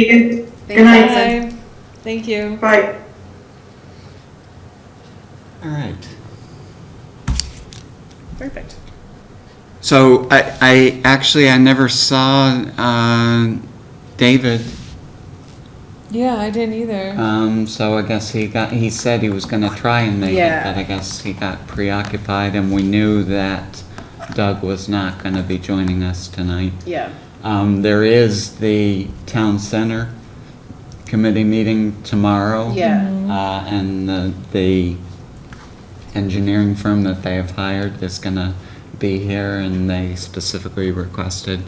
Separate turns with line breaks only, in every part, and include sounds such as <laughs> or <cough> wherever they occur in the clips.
you.
Thanks,
Good night.
Allison. Thank you.
Bye.
All right.
Perfect.
So I, I actually, I never saw uh, David,
Yeah, I didn't either.
um, so I guess he got, he said he was going to try and make it,
Yeah.
but I guess he got preoccupied, and we knew that Doug was not going to be joining us tonight.
Yeah.
Um, There is the Town Center Committee meeting tomorrow.
Yeah,
Uh, and the, the engineering firm that they have hired is gonna be here, and they specifically requested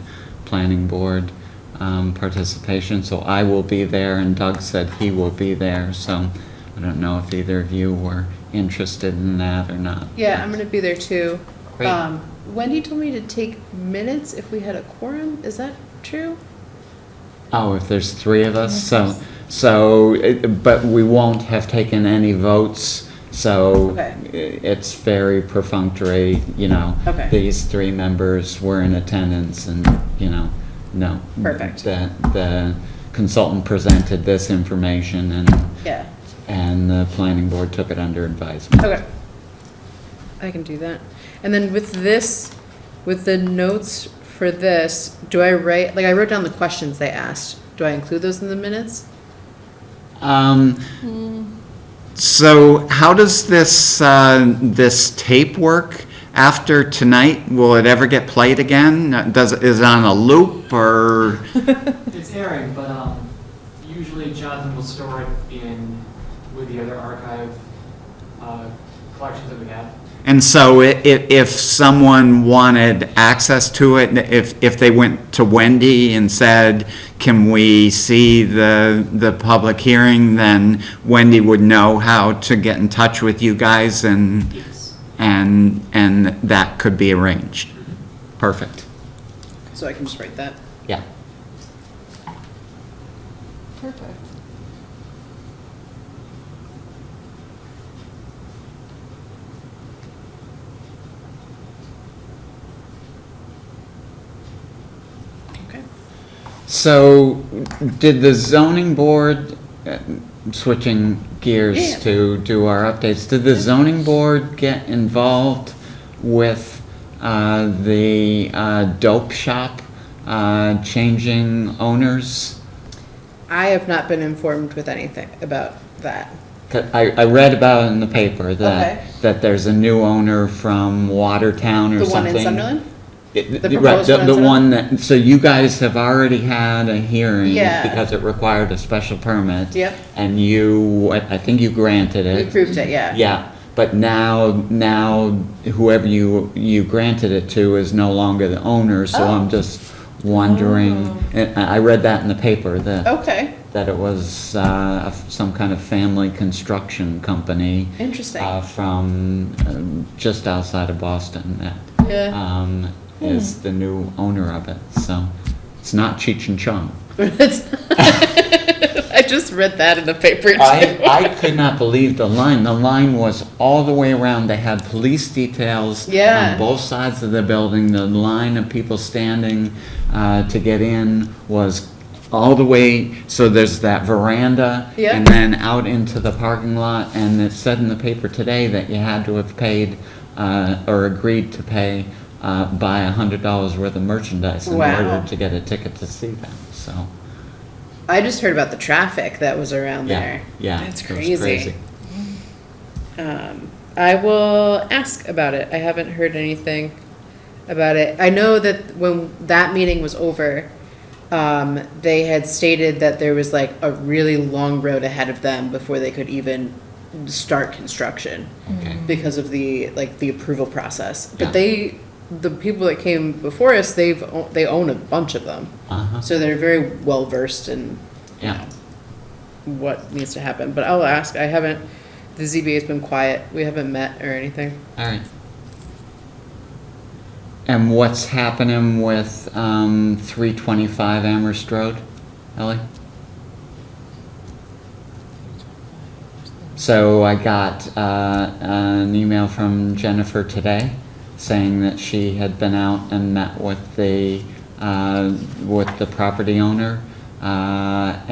planning board, um, participation, so I will be there, and Doug said he will be there, so I don't know if either of you were interested in that or not.
yeah, I'm gonna be there too.
Great.
Um, Wendy told me to take minutes if we had a quorum, is that true?
Oh, if there's three of us, so, so, it- but we won't have taken any votes, so
Okay.
i- it's very perfunctory, you know.
Okay.
These three members were in attendance and, you know, no.
Perfect.
The, the consultant presented this information and,
Yeah,
and the planning board took it under advisement.
okay. I can do that. And then with this, with the notes for this, do I write, like, I wrote down the questions they asked. Do I include those in the minutes?
Um, so how does this, uh, this tape work after tonight? Will it ever get played again? Uh, Does, is it on a loop or?
It's airing, but um, usually Jonathan will store it in, with the other archive uh, collections that we have.
And so i- i- if someone wanted access to it, if, if they went to Wendy and said, can we see the, the public hearing, then Wendy would know how to get in touch with you guys and,
Yes.
and, and that could be arranged. Perfect.
So I can just write that.
Yeah.
Perfect.
Okay.
So did the zoning board, uh, switching gears
Yeah.
to do our updates, did the zoning board get involved with uh, the uh, dope shop uh, changing owners?
I have not been informed with anything about that.
'Cause I, I read about it in the paper
Okay.
that, that there's a new owner from Watertown or
The one
something.
in Sunderland?
It-
The
right,
proposed one
the- The
instead of-
one that, so you guys have already had a hearing
Yeah.
because it required a special permit.
Yep.
And you, I I think you granted
We
it.
approved it, yeah.
Yeah, but now, now whoever you, you granted it to is no longer the owner, so
Oh.
I'm just wondering. And I I read that in the paper, that,
Okay,
that it was uh, a f- some kind of family construction company.
Interesting.
uh, From um, just outside of Boston that
yeah. Hmm.
um, is the new owner of it. So it's not Cheech and Chong.
It's- <laughs> I just read that in the paper too. <laughs>
I, I could not believe the line. The line was all the way around. They had police details
Yeah.
on both sides of the building. The line of people standing uh, to get in was all the way. So there's that veranda
Yeah.
and then out into the parking lot. And it said in the paper today that you had to have paid uh, or agreed to pay uh, by $100 worth of merchandise in
Wow.
order to get a ticket to see them. So.
I just heard about the traffic that was around
Yeah,
there.
yeah.
That's
it was
crazy. Um, I will ask about it. I haven't heard anything about it. I know that when that meeting was over, um, they had stated that there was like a really long road ahead of them before they could even start construction
Okay.
because of the, like, the approval process.
Yeah.
But they, the people that came before us, they've, o- they own a bunch of them.
Uh-huh.
So they're very well versed in you
Yeah.
know, what needs to happen. But I'll ask. I haven't. The ZBA has been quiet. We haven't met or anything.
All right. And what's happening with um, 325 Amherst Road, Ellie? So I got uh, an email from Jennifer today saying that she had been out and met with the, uh, with the property owner uh, Uh,